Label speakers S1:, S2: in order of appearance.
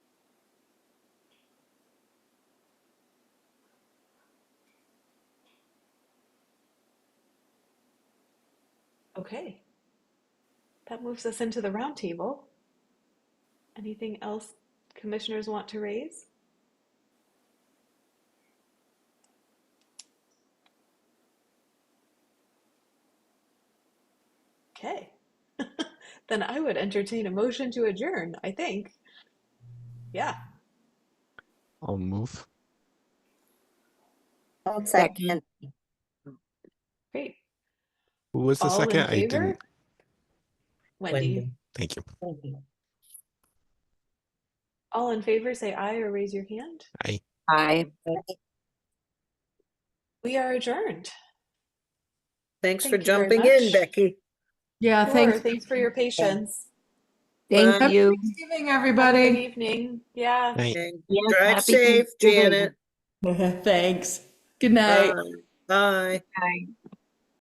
S1: Okay, that moves us into the roundtable. Anything else commissioners want to raise? Okay, then I would entertain a motion to adjourn, I think. Yeah,
S2: I'll move.
S3: I'll
S4: Second.
S3: second.
S1: great.
S2: Who was the
S1: All in
S2: second? I
S1: favor?
S2: didn't.
S1: Wendy,
S2: Thank you.
S1: all in favor, say aye or raise your hand.
S2: I.
S4: Aye.
S1: We are adjourned.
S5: Thanks for
S1: Thank you very
S5: jumping in,
S1: much.
S5: Becky.
S6: Yeah,
S1: Sure,
S6: thanks.
S1: thanks for your patience.
S5: Bye.
S4: Thank you.
S6: Thanksgiving,
S1: Have a Good
S6: everybody.
S1: evening, yeah.
S2: I.
S5: And
S4: Yes,
S5: Drive
S4: happy
S5: safe,
S4: Thanksgiving.
S5: Janet.
S6: Thanks. Good night.
S5: Bye. Bye.
S4: Bye.